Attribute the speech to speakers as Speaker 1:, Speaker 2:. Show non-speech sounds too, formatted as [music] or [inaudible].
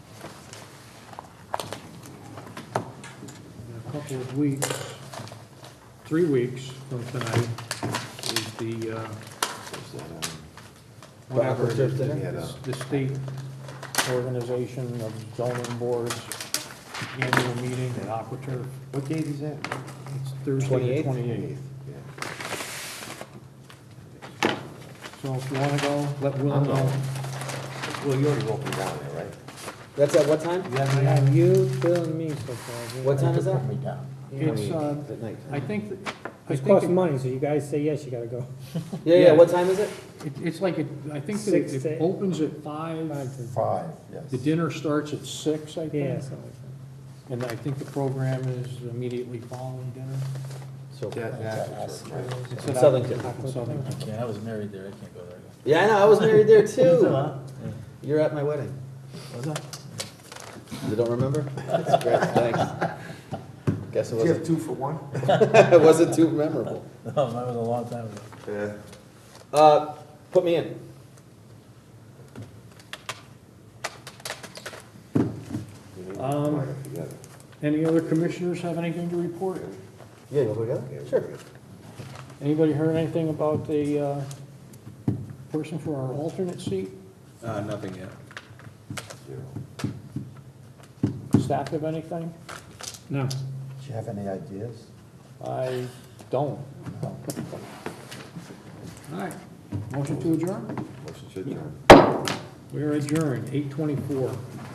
Speaker 1: couple of weeks, three weeks from tonight, is the, uh, whatever, it is,
Speaker 2: Backward, yeah, no.
Speaker 1: the the state organization of zoning boards annual meeting at AquaTurf.
Speaker 2: What date is that?
Speaker 1: It's Thursday, the twenty-eighth. So if you wanna go, let Will
Speaker 2: I'm going.
Speaker 1: know.
Speaker 2: Well, you already wrote me down there, right?
Speaker 3: That's at what time?
Speaker 1: Yeah,
Speaker 4: I have you, Bill, and me so far.
Speaker 3: What time is [laughs] that?
Speaker 1: It's, uh,
Speaker 2: At night.
Speaker 1: I think, that- I
Speaker 4: It's
Speaker 1: think,
Speaker 4: costing money, so you guys say yes, you gotta go.
Speaker 3: Yeah, yeah, what time is it?
Speaker 1: it- it's like, it- I think that
Speaker 4: Six
Speaker 1: it-
Speaker 4: to-
Speaker 1: it opens at five,
Speaker 4: Five to-
Speaker 5: Five,
Speaker 1: the
Speaker 5: yes.
Speaker 1: dinner starts at six, I
Speaker 4: Yeah,
Speaker 1: think.
Speaker 4: something like
Speaker 1: And I think the program is immediately following dinner.
Speaker 3: So,
Speaker 2: That, that's right.
Speaker 1: It's
Speaker 3: In
Speaker 1: at
Speaker 3: Southington.
Speaker 1: Aqua- Southington.
Speaker 6: I can't, I was married there, I can't go there. [laughs]
Speaker 3: yeah, I know, I was married [laughs] there too. You're at my wedding.
Speaker 6: Was I?
Speaker 3: You don't remember? That's [laughs] great, thanks. Guess
Speaker 5: Do
Speaker 3: it
Speaker 5: you
Speaker 3: [laughs]
Speaker 5: have
Speaker 3: wasn't,
Speaker 5: two for one?
Speaker 3: it wasn't too memorable.
Speaker 6: No, Um, that was a long time ago.
Speaker 5: Yeah.
Speaker 3: Uh, put me in.
Speaker 2: We need to
Speaker 1: Um,
Speaker 2: line up together.
Speaker 1: Any other commissioners have anything to report?
Speaker 3: Yeah, you wanna go
Speaker 2: Yeah,
Speaker 3: together?
Speaker 2: we
Speaker 3: Sure.
Speaker 2: good.
Speaker 1: Anybody heard anything about the uh, person for our alternate seat?
Speaker 7: Uh, nothing yet.
Speaker 2: Zero.
Speaker 1: Staff have anything? No.
Speaker 5: Do you have any ideas?
Speaker 1: I don't. All right, motion to adjourn?
Speaker 2: Motion to adjourn.
Speaker 1: We are adjourned, eight twenty-four.